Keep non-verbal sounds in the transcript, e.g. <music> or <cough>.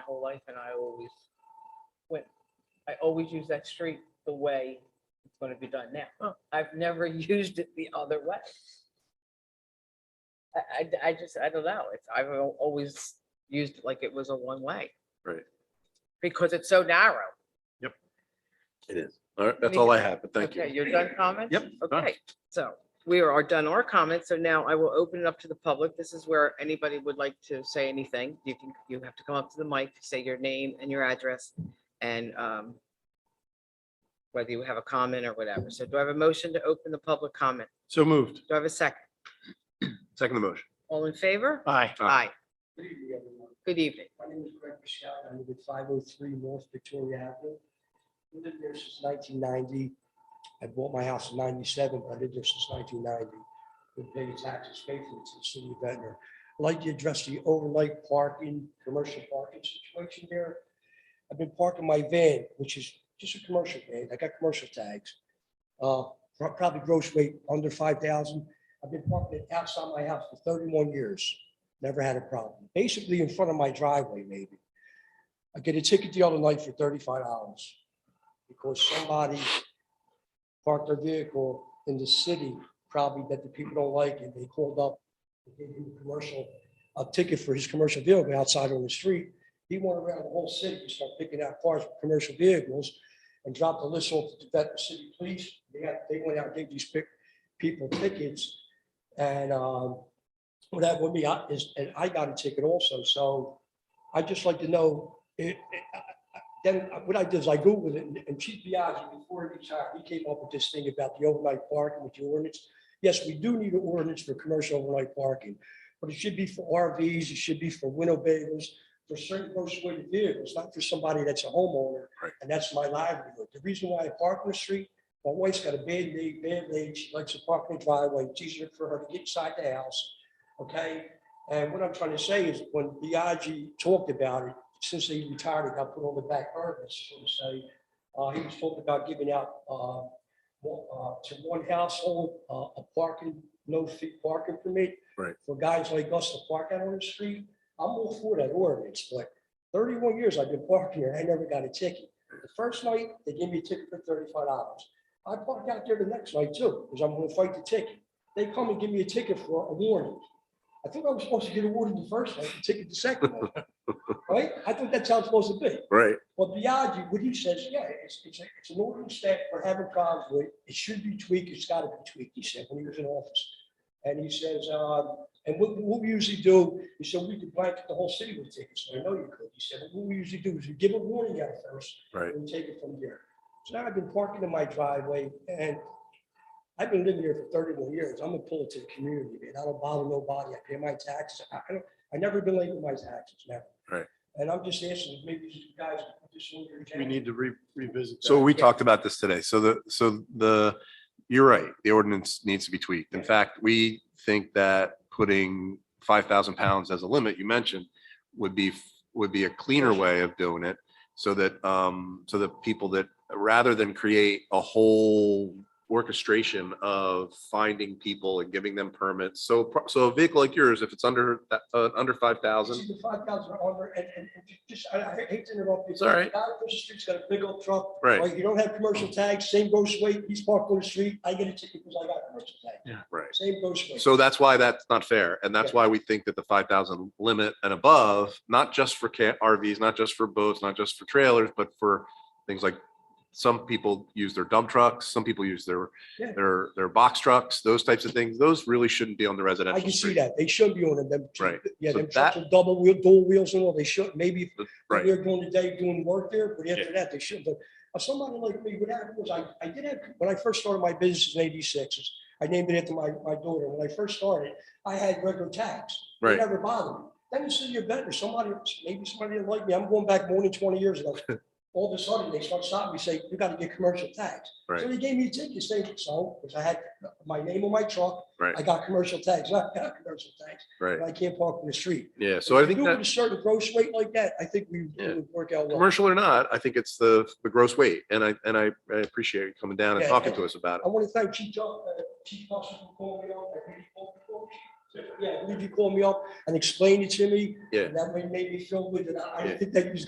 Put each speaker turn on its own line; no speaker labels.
whole life and I always, when, I always use that street the way it's gonna be done now. I've never <laughs> used it the other way. I, I, I just, I don't know, it's, I've al- always used it like it was a one-way.
Right.
Because it's so narrow.
It is. All right, that's all I have, but thank
Okay,
you.
You're done comments?
Yep, done.
Okay, so we are done our comments, so now I will open it up to the public. This is where anybody would like to say anything. You can, you have to come up to the mic, say your name and your address and um whether you have a comment or whatever. So do I have a motion to open the public comment?
So moved.
Do I have a second?
Second the motion.
All in favor?
Aye.
Aye.
Good evening, everyone.
Good evening.
My name is Greg Michelle. I live at 503 North Victoria Avenue. I've lived there since 1990. I bought my house in 97, but I lived there since 1990. Been paying taxes faithfully to the city of Ventnor. I'd like to address the overnight parking, commercial parking situation there. I've been parking my van, which is just a commercial van. I got commercial tags. Uh, pro- Probably gross weight under 5,000. I've been parking it outside my house for 31 years. Never had a problem. Basically in front of my driveway, maybe. I get a ticket the other night for thirty-five dollars because somebody parked their vehicle in the city, probably that the people don't like, and they called up, they gave him a commercial, a ticket for his commercial vehicle outside on the street. He went around the whole city, and started picking out cars, with commercial vehicles, and dropped the list off to the Ventnor City Police. They got, they went out, and gave these pic- people tickets, and, um, well, that would be, I- is, and I got a ticket also, so I'd just like to know, it, it- I- I- then what I did is I Googled it, and- and Chief Biagi, before he retired, he came up with this thing about the overnight parking with the ordinance. Yes, we do need an ordinance for commercial overnight parking, but it should be for RVs, it should be for window bays, for certain motor vehicles, not for somebody that's a homeowner.
Right.
And that's my livelihood. The reason why I park on the street, my wife's got a bad knee, bad leg, she likes to park in the driveway, it's easier for her to get inside the house okay? And what I'm trying to say is when Biagi talked about it, since he retired, he got put on the back burner, so to say. Uh, he was talking about giving out, uh, one- uh, to one household, uh, a parking, no fee parking permit.
Right.
For guys like us to park out on the street. I'm all for that ordinance, but thirty-one years I've been parking here, I never got a ticket. The first night, they gave me a ticket for thirty-five dollars. I parked out there the next night too, because I'm gonna fight the ticket. They come and give me a ticket for a warning. I think I was supposed to get awarded the first night, and ticket the second night. Right? I think that's how it's supposed to be.
Right.
But Biagi, what he says, yeah, it's, it's, a- it's an ordinance that we're having problems with. It should be tweaked. It's gotta be tweaked, he said, when he was in office. And he says, um, and what, what we usually do, he said, we could blanket the whole city with tickets. I know you could. He said, what we usually do is we give a warning out first.
Right.
And we take it from there. So now I've been parking in my driveway and I've been living here for thirty-one years. I'm a pull to the community, man. I don't bother nobody. I pay my taxes. I, I don't, I never been late with my taxes, never.
Right.
And I'm just asking, maybe you guys. can put this on your
We
agenda.
need to re- revisit.
So
that.
we talked about this today. So the, so the, you're right, the ordinance needs to be tweaked. In fact, we think that putting five thousand pounds as a limit, you mentioned, would be, would be a cleaner way of doing it. So that, um, so that people that, rather than create a whole orchestration of finding people and giving them permits. So, pro- so a vehicle like yours, if it's under, that- uh, under five thousand,
See the five thousand over and, and and ju- just, I I hate to interrupt you.
It's all right.
Guy across the street's got a big old truck.
Right.
You don't have commercial tags, same goes weight, he's parked on the street, I get a ticket because I got a commercial tag.
Yeah.
Right.
Same goes weight.
So that's why that's not fair. And that's why we think that the five thousand limit and above, not just for ca- RVs, not just for boats, not just for trailers, but for things like some people use their dump trucks, some people use their,
Yeah.
their, their box trucks, those types of things. Those really shouldn't be on the
I
residential
can see
street.
that, they should be on them, them. tr-
Right.
Yeah,
So
them trucks
that-
with double wheel, dual wheels and all, they should, maybe if
Right,
they're during the day doing work there, but after
Yeah.
that, they should, but uh, somebody like me, what happened was I, I did have, when I first started my business in eighty-six, I named it after my, my daughter, when I first started, I had regular tags. It
right.
Never bothered me. Then you see you're better. Somebody, maybe somebody didn't like me. I'm going back more than twenty years
<laughs>
ago. All of a sudden, they start stopping me, say, you gotta get commercial tags. So
Right.
they gave me a ticket, saying, so, because I had my name on my truck.
Right.
I got commercial tags, I got commercial tags,
Right.
but I can't park in the street.
Yeah. So I
If you
think
do it with
that,
A certain gross weight like that, I think we
Yeah.
it would work out well.
commercial or not, I think it's the, the gross weight. And I, and I I appreciate you coming down and
Yeah,
talking
yeah.
to us about it.
I want to thank Chief, Jo- uh, Chief Foster for calling me out. I really hope you call. Yeah, I believe you called me up and explained it to me.
Yeah.
And that made me feel good, and I I
Yeah.
think that you was